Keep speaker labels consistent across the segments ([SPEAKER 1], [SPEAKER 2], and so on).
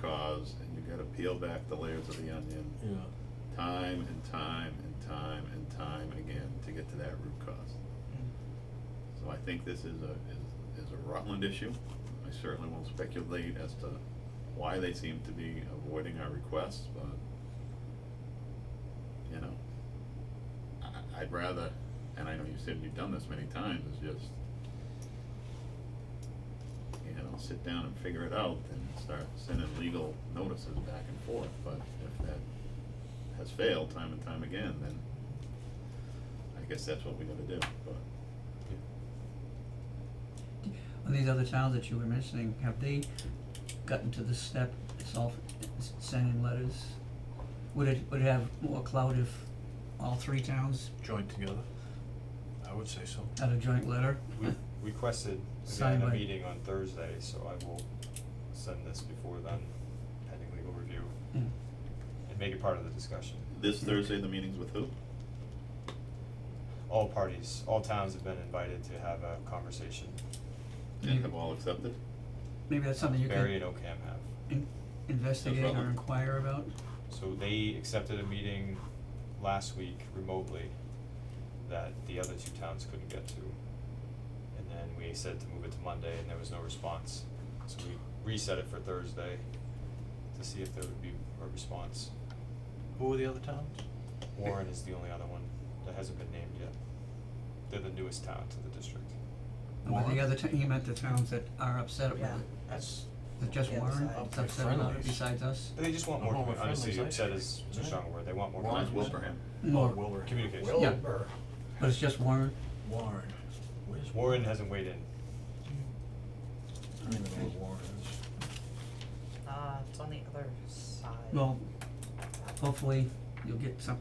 [SPEAKER 1] does, and you gotta peel back the layers of the onion
[SPEAKER 2] yeah,
[SPEAKER 1] time and time and time and time again to get to that root cause. So I think this is a, is, is a Rutland issue. I certainly won't speculate as to why they seem to be avoiding our requests, but, you know, I, I'd rather, and I know you said you've done this many times, is just, you know, sit down and figure it out and start sending legal notices back and forth, but if that has failed time and time again, then I guess that's what we gotta do, but
[SPEAKER 3] Well, these other towns that you were mentioning, have they gotten to this step, self, s- sending letters? Would it, would it have more clout if all three towns
[SPEAKER 2] joined together, I would say so.
[SPEAKER 3] had a joint letter?
[SPEAKER 4] We requested, again,
[SPEAKER 3] Signed
[SPEAKER 4] a
[SPEAKER 3] by-
[SPEAKER 4] meeting on Thursday, so I will send this before then, pending legal review,
[SPEAKER 3] Yeah.
[SPEAKER 4] and make it part of the discussion.
[SPEAKER 1] This Thursday, the meeting's with who?
[SPEAKER 4] All parties, all towns have been invited to have a conversation,
[SPEAKER 1] And have all accepted?
[SPEAKER 3] Maybe that's something you
[SPEAKER 4] Barry
[SPEAKER 3] could
[SPEAKER 4] and Ocam have.
[SPEAKER 3] in- investigate or
[SPEAKER 1] problem.
[SPEAKER 3] inquire about?
[SPEAKER 4] So they accepted a meeting last week remotely that the other two towns couldn't get to. And then we said to move it to Monday and there was no response. So we reset it for Thursday to see if there would be a response.
[SPEAKER 2] Who were the other towns?
[SPEAKER 4] Warren is the only other one that hasn't been named yet. They're the newest town to the district.
[SPEAKER 3] And with
[SPEAKER 2] Warren?
[SPEAKER 3] the other, ta- he meant the towns that are upset about it,
[SPEAKER 5] Yeah.
[SPEAKER 2] That's,
[SPEAKER 3] Is it just
[SPEAKER 5] Yeah,
[SPEAKER 3] Warren,
[SPEAKER 5] besides-
[SPEAKER 3] that's upset about it
[SPEAKER 2] Friendlies.
[SPEAKER 3] besides us?
[SPEAKER 4] They just want
[SPEAKER 2] I'm
[SPEAKER 4] more,
[SPEAKER 2] all
[SPEAKER 4] commu-
[SPEAKER 2] with
[SPEAKER 4] honestly,
[SPEAKER 2] friendlies,
[SPEAKER 4] upset
[SPEAKER 2] I
[SPEAKER 4] is too
[SPEAKER 2] think.
[SPEAKER 4] strong a word. They want more
[SPEAKER 1] Warren's
[SPEAKER 4] communication.
[SPEAKER 1] Wilbraham.
[SPEAKER 2] oh,
[SPEAKER 3] More,
[SPEAKER 2] Wilbur.
[SPEAKER 4] Communication.
[SPEAKER 5] Wilbur.
[SPEAKER 3] but it's just Warren,
[SPEAKER 2] Warren, where's?
[SPEAKER 4] Warren hasn't weighed in.
[SPEAKER 2] I don't even know where Warren is.
[SPEAKER 5] Uh, it's on the other side.
[SPEAKER 3] well, hopefully you'll get some,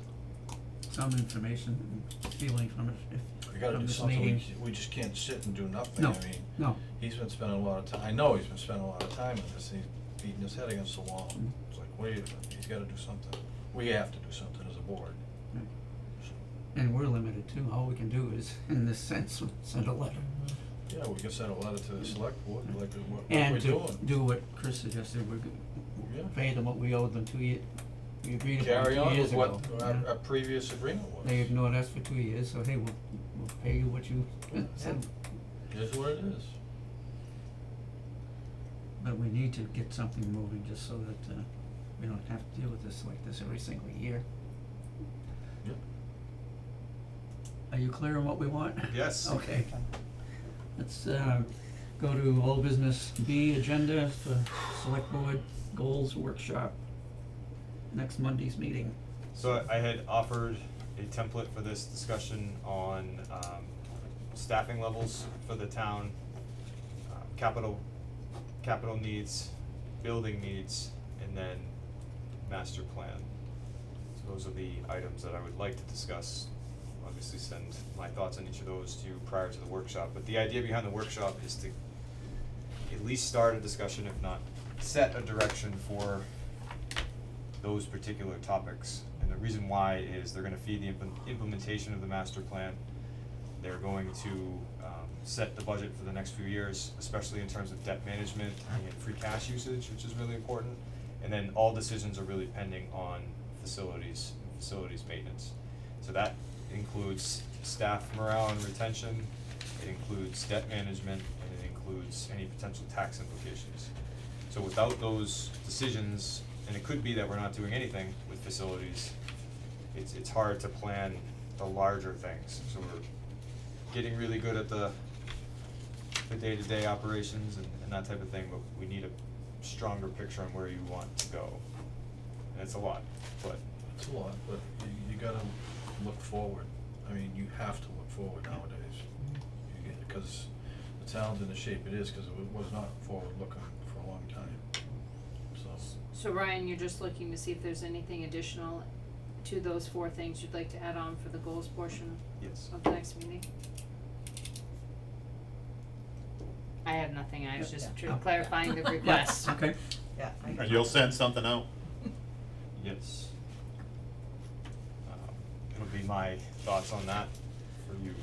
[SPEAKER 3] some information and feeling from it if,
[SPEAKER 2] We gotta
[SPEAKER 3] from
[SPEAKER 2] do
[SPEAKER 3] this
[SPEAKER 2] something, we,
[SPEAKER 3] meeting.
[SPEAKER 2] j- we just can't sit and do nothing, I
[SPEAKER 3] No.
[SPEAKER 2] mean.
[SPEAKER 3] No,
[SPEAKER 2] He's been spending a lot of time, I know he's been spending a lot of time on this, and he's beating his head against the wall.
[SPEAKER 3] Mm.
[SPEAKER 2] It's like, wait, a minute, he's gotta do something. We have to do something as a board.
[SPEAKER 3] Right. and we're limited too, all we can do is, in this sense, send a letter.
[SPEAKER 5] Mm-hmm.
[SPEAKER 2] Yeah, we can send a letter to the select board, like, what, what are we
[SPEAKER 3] And
[SPEAKER 2] doing?
[SPEAKER 3] to do what Chris suggested, we're
[SPEAKER 2] Yeah.
[SPEAKER 3] gonna pay them what we owed them two years, we agreed upon two
[SPEAKER 2] Carry on
[SPEAKER 3] years
[SPEAKER 2] with
[SPEAKER 3] ago.
[SPEAKER 2] what
[SPEAKER 3] yeah.
[SPEAKER 2] our, our previous agreement was.
[SPEAKER 3] They ignored us for two years, so hey, we'll, we'll pay you what you said,
[SPEAKER 2] Here's what it is.
[SPEAKER 3] but we need to get something moving just so that, uh, we don't have to deal with this like this every single year.
[SPEAKER 2] Yep.
[SPEAKER 3] Are you clear on what we want?
[SPEAKER 4] Yes.
[SPEAKER 3] Okay. Let's, uh, go to all business B agenda for select board goals workshop, next Monday's meeting.
[SPEAKER 4] So I I had offered a template for this discussion on um staffing levels for the town, um, capital, capital needs, building needs, and then master plan. So those are the items that I would like to discuss, obviously send my thoughts on each of those to you prior to the workshop, but the idea behind the workshop is to at least start a discussion, if not set a direction for those particular topics. And the reason why is they're gonna feed the implement- implementation of the master plan. They're going to um set the budget for the next few years, especially in terms of debt management and free cash usage, which is really important. And then all decisions are really pending on facilities, facilities maintenance. So that includes staff morale and retention, it includes debt management, and it includes any potential tax implications. So without those decisions, and it could be that we're not doing anything with facilities, it's, it's hard to plan the larger things. So we're getting really good at the, the day-to-day operations and, and that type of thing, but we need a stronger picture on where you want to go. And it's a lot, but
[SPEAKER 2] It's a lot, but you, you gotta look forward. I mean, you have to look forward nowadays. You get, cause the town's in the shape it is, cause it wa- was not forward-looking for a long time, so.
[SPEAKER 6] So Ryan, you're just looking to see if there's anything additional to those four things you'd like to add on for the goals portion
[SPEAKER 4] yes.
[SPEAKER 6] of the next meeting? I have nothing, I was just tr-
[SPEAKER 3] Yeah.
[SPEAKER 6] clarifying the
[SPEAKER 3] Yeah,
[SPEAKER 6] request.
[SPEAKER 3] Okay.
[SPEAKER 5] Yeah, I
[SPEAKER 1] And you'll send something out?
[SPEAKER 4] Yes. Um, it'll be my thoughts on that for you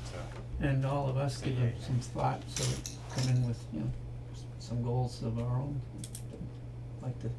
[SPEAKER 4] to,
[SPEAKER 3] And all of us give them some thought, so come in with, you know, some goals of our own, like to